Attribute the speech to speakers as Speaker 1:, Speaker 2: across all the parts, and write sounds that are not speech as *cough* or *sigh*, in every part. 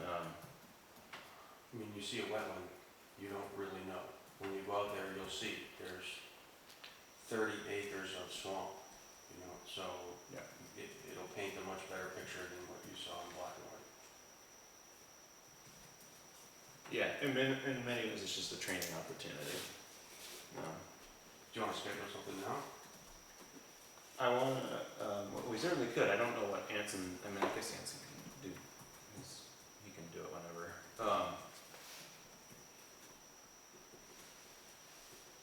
Speaker 1: Um, you see a wetland, you don't really know. When you go out there, you'll see, there's thirty acres of swamp, you know, so
Speaker 2: Yeah.
Speaker 1: it, it'll paint a much better picture than what you saw in black and white.
Speaker 2: Yeah, in many, in many ways, it's just a training opportunity. Um,
Speaker 1: Do you wanna schedule something now?
Speaker 2: I want to. Um, well, we certainly could. I don't know what Anson. I mean, I guess Anson can do. He's, he can do it whenever. Um,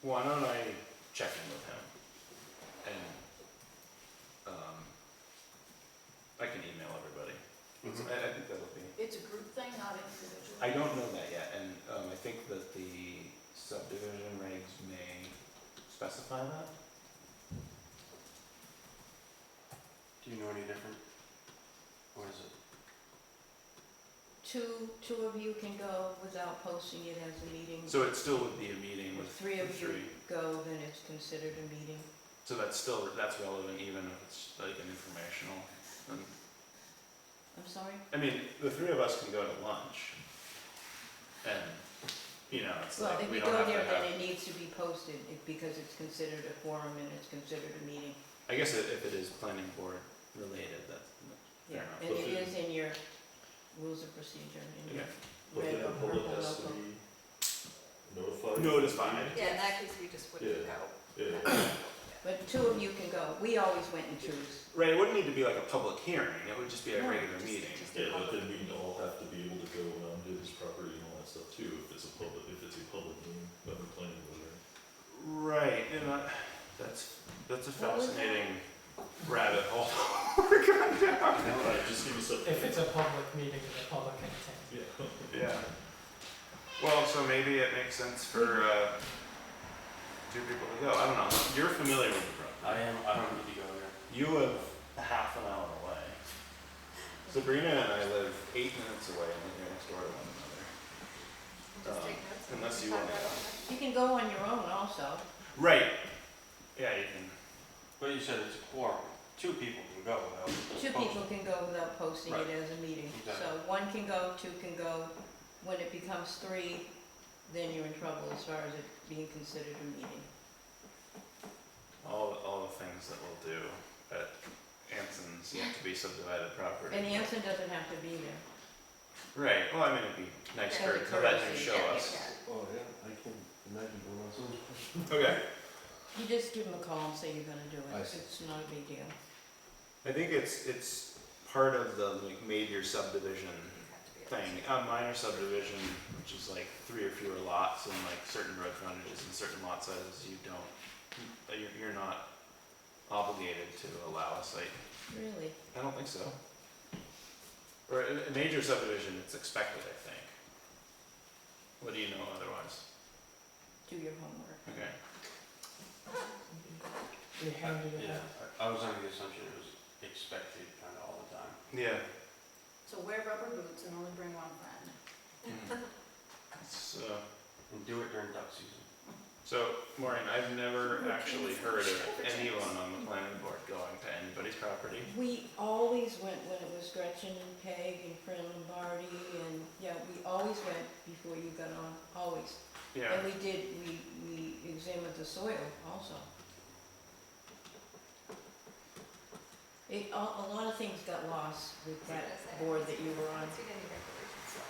Speaker 2: why don't I check in with him? And um, I can email everybody.
Speaker 1: Mhm.
Speaker 2: I, I think that'll be.
Speaker 3: It's a group thing, not individual?
Speaker 2: I don't know that yet, and um, I think that the subdivision regs may specify that.
Speaker 1: Do you know any different? What is it?
Speaker 3: Two, two of you can go without posting it as a meeting.
Speaker 2: So it still would be a meeting with
Speaker 3: If three
Speaker 2: the
Speaker 3: of you go, then it's considered a meeting.
Speaker 2: So that's still, that's relevant even if it's like an informational. um,
Speaker 3: I'm sorry?
Speaker 2: I mean, the three of us can go to lunch. And, you know, it's
Speaker 3: Well,
Speaker 2: like,
Speaker 3: if
Speaker 2: we
Speaker 3: you
Speaker 2: don't
Speaker 3: go
Speaker 2: have to
Speaker 3: there,
Speaker 2: have,
Speaker 3: then it needs to be posted it- because it's considered a forum and it's considered a meeting.
Speaker 2: I guess i- if it is planning board related, that's, Fair
Speaker 3: Yeah,
Speaker 2: enough.
Speaker 3: and it
Speaker 2: Well,
Speaker 3: is in your rules of procedure, in
Speaker 2: yeah.
Speaker 3: your red or purple local.
Speaker 4: Notified?
Speaker 2: Notified.
Speaker 5: Yeah, in that case, we just wouldn't
Speaker 4: Yeah.
Speaker 5: go.
Speaker 4: Yeah.
Speaker 3: But two of you can go. We always went in twos.
Speaker 2: Right, it wouldn't need to be like a public hearing, it would just be a
Speaker 3: No,
Speaker 2: regular
Speaker 5: just-
Speaker 2: meeting.
Speaker 5: just-
Speaker 4: Yeah, but then we'd all have to be able to go around to his property and all that stuff too, if it's a public, if it's a public meeting, but we're planning with it.
Speaker 2: Right, and I, that's, that's a
Speaker 3: What was that?
Speaker 2: fascinating rabbit hole. *laughs*
Speaker 4: Alright, just give me something.
Speaker 6: If it's a public meeting, the public can attend.
Speaker 4: Yeah.
Speaker 2: Yeah. Well, so maybe it makes sense for uh, two people to go. I don't know. You're familiar with the program.
Speaker 1: I am, I don't need to go there.
Speaker 2: You live half an hour away. Sabrina and I live eight minutes away and live next door to one another.
Speaker 5: Just
Speaker 2: Um,
Speaker 5: take notes. and
Speaker 2: unless you
Speaker 5: find
Speaker 2: wanna-
Speaker 5: out all that.
Speaker 3: You can go on your own also.
Speaker 2: Right. Yeah, you can.
Speaker 1: But you said it's a quorum, two people can go without.
Speaker 3: Two
Speaker 1: posting.
Speaker 3: people can go without posting it as a meeting. So
Speaker 1: Exactly.
Speaker 3: one can go, two can go. When it becomes three, then you're in trouble as far as it being considered a meeting.
Speaker 2: All, all the things that we'll do at Anson's yet to be subdivided property.
Speaker 3: And Anson doesn't have to be there.
Speaker 2: Right. Well, I mean, it'd be nice
Speaker 5: Yeah.
Speaker 2: for her to come back and
Speaker 3: Courtesy,
Speaker 2: show
Speaker 5: Yeah,
Speaker 2: us.
Speaker 5: yeah,
Speaker 1: Oh, yeah, I can imagine going on
Speaker 2: Okay.
Speaker 3: You just give him a call and say you're gonna do it.
Speaker 1: I see.
Speaker 3: It's not a big deal.
Speaker 2: I think it's it's part of the like major subdivision
Speaker 5: you have to be able to-
Speaker 2: thing, a minor subdivision, which is like three or fewer lots and like certain road frontages and certain lot sizes, you don't, you're, you're not obligated to allow a site.
Speaker 3: Really?
Speaker 2: I don't think so. Or a, a major subdivision, it's expected, I think. What do you know otherwise?
Speaker 3: Do your homework.
Speaker 2: Okay.
Speaker 6: They handed it
Speaker 1: Yeah,
Speaker 6: out.
Speaker 1: I I was under the assumption it was expected kind of all the time.
Speaker 2: Yeah.
Speaker 5: So wear rubber boots and only bring one friend.
Speaker 2: Hmm. So,
Speaker 1: And do it during duck season.
Speaker 2: so Maureen, I've never
Speaker 5: Okay.
Speaker 2: actually heard of anyone on the planning board going to anybody's property.
Speaker 3: We always went when it was Gretchen and Peg and Fran Lombardi and, yeah, we always went before you got on, always.
Speaker 2: Yeah.
Speaker 3: And we did, we, we examined the soil also. It, a, a lot of things got lost with that board that you were on.
Speaker 5: Once you get any regulations, so.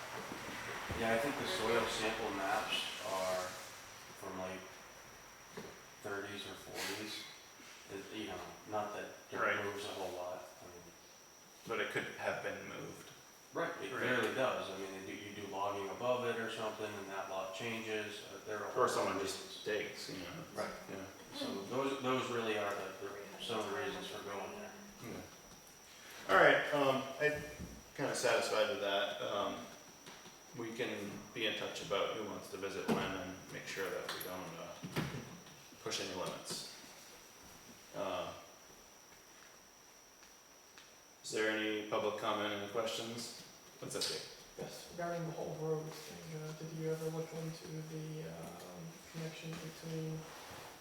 Speaker 1: Yeah, I think the soil sample maps are from like thirties or forties. It, you know, not that it
Speaker 2: Right.
Speaker 1: moves a whole lot. I mean,
Speaker 2: But it could have been moved.
Speaker 1: Right. It
Speaker 2: Right.
Speaker 1: barely does. I mean, they do- you do logging above it or something and that lot changes. uh, There are.
Speaker 2: Or someone
Speaker 1: reasons.
Speaker 2: just digs, you know.
Speaker 1: Right.
Speaker 2: Yeah.
Speaker 1: So those, those really are the, the- some of the reasons for going there.
Speaker 2: All right. Um, I kind of satisfied with that. Um, we can be in touch about who wants to visit when and make sure that we don't uh, push any limits. Uh, is there any public comment and questions? What's up here?
Speaker 6: Yes, regarding the whole road thing, uh, did you ever look into the, um, connection between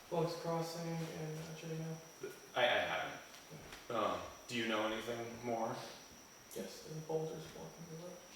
Speaker 6: Bugs Crossing and uh, Cherry Hill?
Speaker 2: I, I haven't. Um, do you know anything more?
Speaker 6: Yes. And boulders blocking the road?